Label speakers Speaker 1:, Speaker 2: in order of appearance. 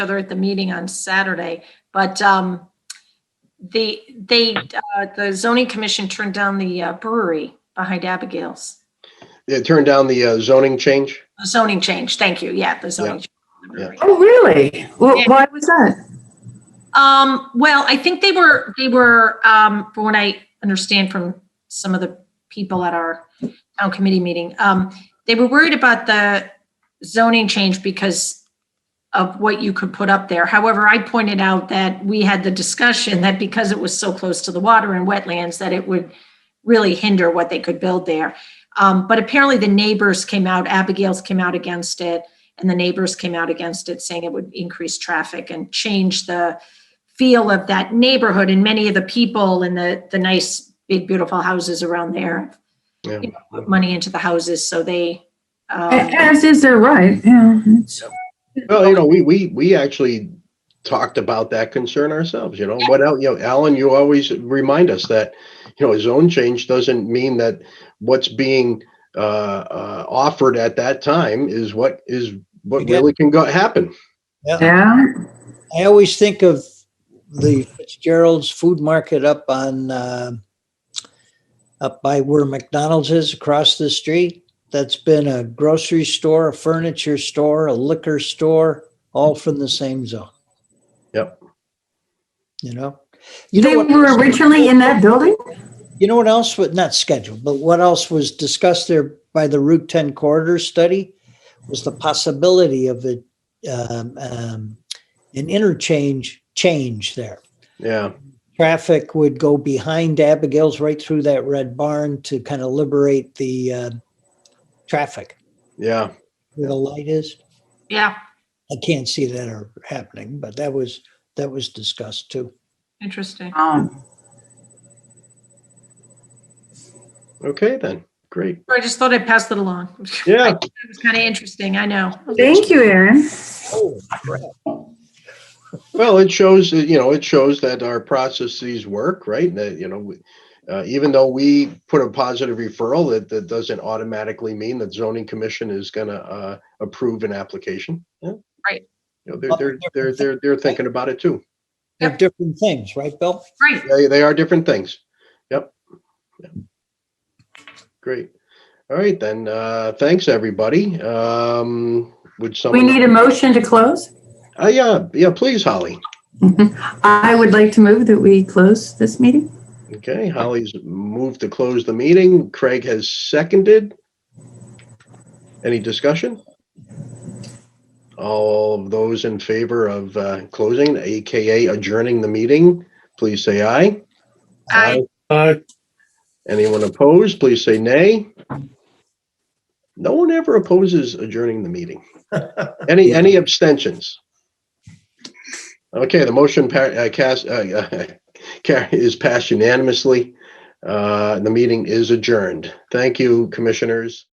Speaker 1: other at the meeting on Saturday, but um, the, they, uh, the zoning commission turned down the uh, brewery behind Abigail's.
Speaker 2: It turned down the uh, zoning change.
Speaker 1: The Zoning change, thank you, yeah, the zoning. change on the
Speaker 2: Yeah.
Speaker 1: brewery.
Speaker 3: Oh, really? Well,
Speaker 1: Yeah.
Speaker 3: why was that?
Speaker 1: Um, well, I think they were, they were, um, from what I understand from some of the people at our town committee meeting, um, they were worried about the zoning change because of what you could put up there. However, I pointed out that we had the discussion that because it was so close to the water and wetlands, that it would really hinder what they could build there. Um, but apparently the neighbors came out, Abigail's came out against it, and the neighbors came out against it, saying it would increase traffic and change the feel of that neighborhood and many of the people and the the nice big beautiful houses around there
Speaker 2: Yeah.
Speaker 1: you know, put money into the houses so they um,
Speaker 3: A- As is their right, yeah. it's-
Speaker 2: Well, you know, we, we, we actually talked about that concern ourselves, you know, what, el- you know, Alan, you always remind us that, you know, a zone change doesn't mean that what's being uh, uh, offered at that time is what is, what
Speaker 4: You get-
Speaker 2: really can go, happen.
Speaker 3: Yeah,
Speaker 4: I always think of the Fitzgerald's food market up on, uh, up by where McDonald's is across the street. That's been a grocery store, a furniture store, a liquor store, all from the same zone.
Speaker 2: Yep.
Speaker 4: You know? You
Speaker 3: they
Speaker 4: know what?
Speaker 3: were originally in that building?
Speaker 4: You know what else was not scheduled, but what else was discussed there by the Route 10 corridor study was the possibility of a, um, um, an interchange change there.
Speaker 2: Yeah.
Speaker 4: Traffic would go behind Abigail's right through that red barn to kind of liberate the uh, traffic
Speaker 2: Yeah.
Speaker 4: where the light is.
Speaker 1: yeah
Speaker 4: I can't see that are happening, but that was that was discussed too.
Speaker 1: interesting
Speaker 3: Um,
Speaker 2: Okay, then. Great.
Speaker 1: i just thought i'd pass that along
Speaker 2: Yeah.
Speaker 1: it was kind of interesting i know
Speaker 3: Thank you, Aaron.
Speaker 4: Oh,
Speaker 2: Well, it shows, that, you know, it shows that our processes work, right? That, you know, we- uh, even though we put a positive referral, that, that doesn't automatically mean that zoning commission is gonna, uh, approve an application. Yeah.
Speaker 1: Right.
Speaker 2: You know, they're, they're, they're, they're, they're thinking about it too.
Speaker 4: they're different things, right, Bill?
Speaker 1: great
Speaker 2: They, they are different things. Yep. Yep. Great. All right, then, uh, thanks, everybody. Um, would
Speaker 3: We
Speaker 2: someone?
Speaker 3: need a motion to close.
Speaker 2: Uh, yeah, yeah, please, Holly.
Speaker 3: I would like to move that we close this meeting.
Speaker 2: Okay, Holly's moved to close the meeting. Craig has seconded. Any discussion? All of those in favor of uh, closing, AKA adjourning the meeting, please say aye.
Speaker 1: Aye.
Speaker 5: Aye.
Speaker 2: Anyone opposed, please say nay. No one ever opposes adjourning the meeting. Any, any abstentions? Okay, the motion pa- uh, cast, uh, uh, car- is passed unanimously. Uh, The meeting is adjourned. Thank you, commissioners.